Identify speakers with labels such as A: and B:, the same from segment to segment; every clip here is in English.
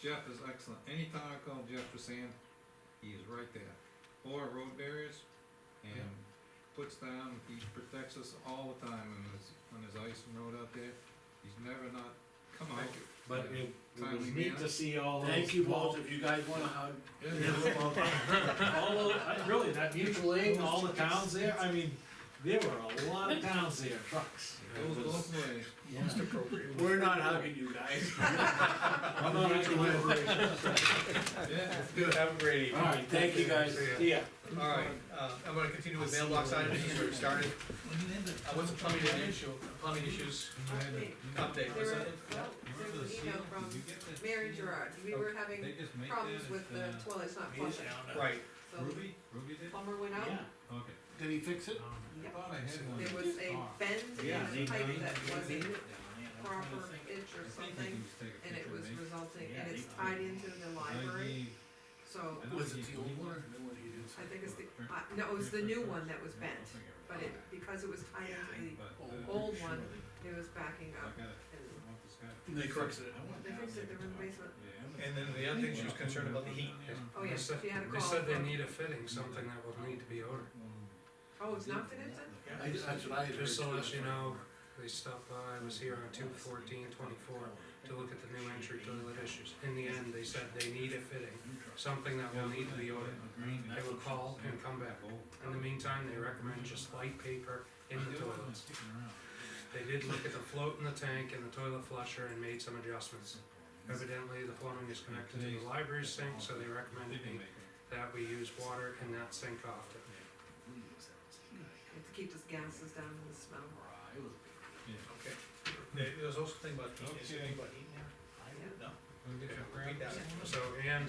A: Jeff is excellent, anytime I call Jeff for sand, he is right there, or road barriers, and puts down, he protects us all the time when there's, when there's ice and road out there, he's never not come out.
B: Thank you.
C: But it, it was
A: Timely
C: neat
A: manner.
C: to see all those.
B: Thank you
C: small-
B: both, if you guys wanna hug.
A: Yeah,
B: give
A: yeah.
B: them a hug.
C: All of, I- really, that mutual aid, and all the towns there, I mean, there were a lot of towns there, trucks.
A: It goes both ways.
D: Most appropriate.
B: We're not hugging you guys.
C: I'm not actually-
A: Yeah,
D: Have a great evening.
C: All right, thank you guys,
D: See ya.
C: see ya.
D: All right, uh, I'm gonna continue with mailbox items, since we started. Uh, what's the plumbing issue, plumbing issues update,
E: There
D: was
E: were,
D: that?
E: well, there was an email from Mary Gerard, we were having
F: They just make that
E: problems with
F: as,
E: the toilets not flushing,
D: Right,
E: so
F: uh, Ruby, Ruby
E: the
F: did?
E: plumber went out,
C: Yeah,
F: Okay.
B: Did he fix it?
F: I thought I had one.
E: there was a
F: Oh.
E: bend
F: Yeah,
E: in the
F: they-
E: pipe
F: they-
E: that
F: they-
E: wasn't
F: they- yeah, I'm trying to
E: proper
F: think.
E: inch or
F: I think I
E: something,
F: used to take a
E: and it
F: picture
E: was
F: of me.
E: resulting,
F: Yeah,
E: and it's
F: they-
E: tied into the
F: I
E: library,
F: gave-
E: so
F: I don't
B: Was it
F: think
B: the
F: you
B: old
F: need
B: one or
F: one.
B: the new one he did?
E: I think it's the, uh, no, it was the new one that was
F: Yeah, I'll
E: bent,
F: figure it
E: but
F: out.
E: it, because it was tied into
F: But,
B: old
F: uh,
E: the old one,
F: surely,
E: it was backing
F: I
E: up,
F: gotta- I
E: and
F: want this guy.
B: They corrected it.
F: I went
E: They
F: down
E: fixed it,
F: there
E: they were in the
F: to-
E: basement.
F: Yeah.
D: and then the other thing she was concerned about the heat.
E: Oh, yeah,
G: They said-
E: she had a
G: They
E: call
G: said they
E: from-
G: need a fitting, something that would need to be ordered.
F: Mm.
E: oh, it's not finished then?
B: I, that's what I had.
G: Just so
B: heard,
G: that
B: too.
G: you know, they stopped by, I was here on two fourteen twenty-four to look at the new entry toilet issues. In the end, they said they need a fitting, something that will need to be ordered. They will call and come back. In the meantime, they recommend just light paper in the toilets. They did look at the float in the tank and the toilet flusher and made some adjustments. Evidently, the plumbing is connected to the library sink, so they recommended me that we use water in that sink often.
E: To keep those gases down and the smell.
D: Okay. There, there was also a thing about heat, is there anything about heat in there? No? Read that.
G: So, and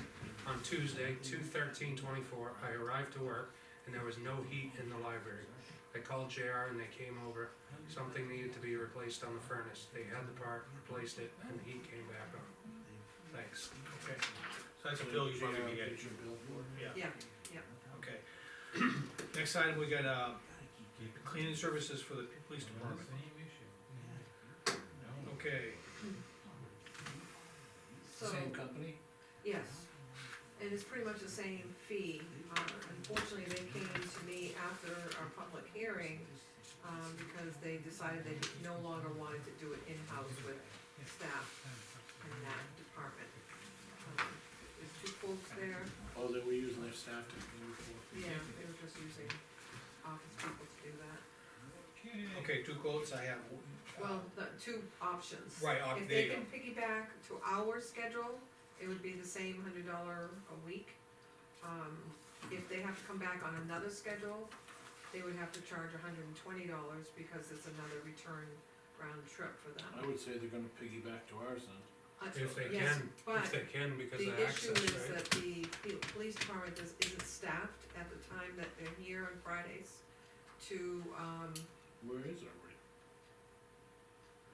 G: on Tuesday, two thirteen twenty-four, I arrived to work and there was no heat in the library. I called JR and they came over, something needed to be replaced on the furnace, they had the part, replaced it, and the heat came back on. Thanks.
D: Okay. So that's a bill you probably can get.
E: Yeah,
D: Okay. Next item, we got, uh, cleaning services for the police department. Okay,
E: so,
B: Same company?
E: yes. And it's pretty much the same fee. Uh, Unfortunately, they came to me after our public hearing, um, because they decided they no longer wanted to do it in-house with staff in that department. Um, There's two folks there,
B: Oh, they were using their staff to clean for.
E: yeah, they were just using office people to do that.
D: okay, two quotes I have.
E: Well, the two options.
D: Right, uh, there
E: If they
D: you go.
E: can piggyback to our schedule, it would be the same hundred dollar a week. Um, if they have to come back on another schedule, they would have to charge hundred and twenty dollars because it's another return round trip for them.
B: I would say they're gonna piggyback to ours then.
E: Uh,
G: Uh, If they can,
E: yes, but-
G: if they can, because of
E: the issue
G: access,
E: is
G: right?
E: that the, the police department is, isn't staffed at the time that they're here on Fridays to, um,
B: Where is our rate?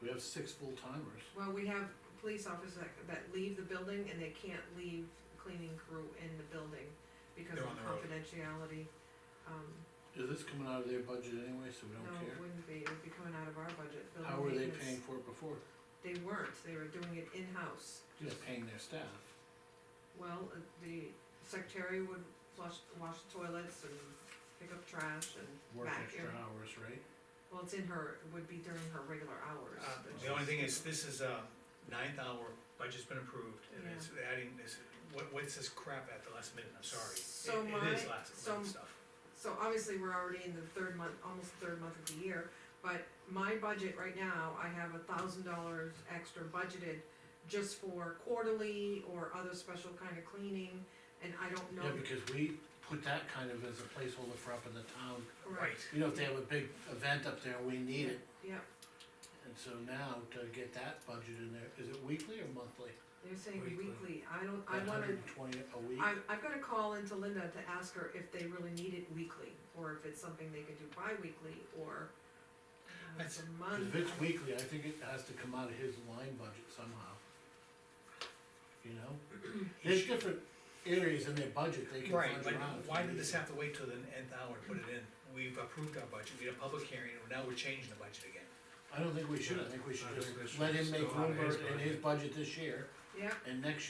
B: We have six full timers.
E: Well, we have police officers that, that leave the building and they can't leave cleaning crew in the building because
D: They're
E: of
D: on the road.
E: confidentiality. Um,
B: Is this coming out of their budget anyway, so we
E: no,
B: don't
E: it
B: care?
E: wouldn't be, it would be coming out of our budget, building
B: How were they
E: maintenance.
B: paying for it before?
E: They weren't, they were doing it in-house.
B: Just paying their staff.
E: Well, uh, the secretary would flush, wash the toilets and pick up trash and
B: Work
E: vacuum.
B: extra hours, right?
E: Well, it's in her, it would be during her regular hours.
D: Uh,
E: that
D: The
E: she's-
D: only thing is, this is a ninth hour, budget's been approved, and it's adding this, what, what's this crap at the last minute, I'm sorry.
E: So
D: It- It is
E: my-
D: last
E: so-
D: minute stuff.
E: So obviously, we're already in the third month, almost the third month of the year, but my budget right now, I have a thousand dollars extra budgeted just for quarterly or other special kind of cleaning, and I don't know.
B: Yeah, because we put that kind of as a placeholder for up in the town.
E: Right,
B: You know, if they have a big event up there, we need it.
E: yeah,
B: And so now to get that budget in there, is it weekly or monthly?
E: they're saying
G: Weekly.
E: weekly, I don't, I
B: Hundred
E: wanna,
B: and twenty a week?
E: I, I've gotta call into Linda to ask her if they really need it weekly, or if it's something they could do bi-weekly, or uh, it's
D: That's-
E: a
B: 'Cause
E: month.
B: If it's weekly, I think it has to come out of his line budget somehow. You know? There's different areas in their budget they can
D: Right,
B: fudge
D: but
B: around.
D: why did this have to wait till the nth hour to put it in? We've approved our budget, we had a public hearing, and now we're changing the budget again.
B: I don't think we should, I think we should just let him make room in his budget this year
E: Yeah,
B: and next year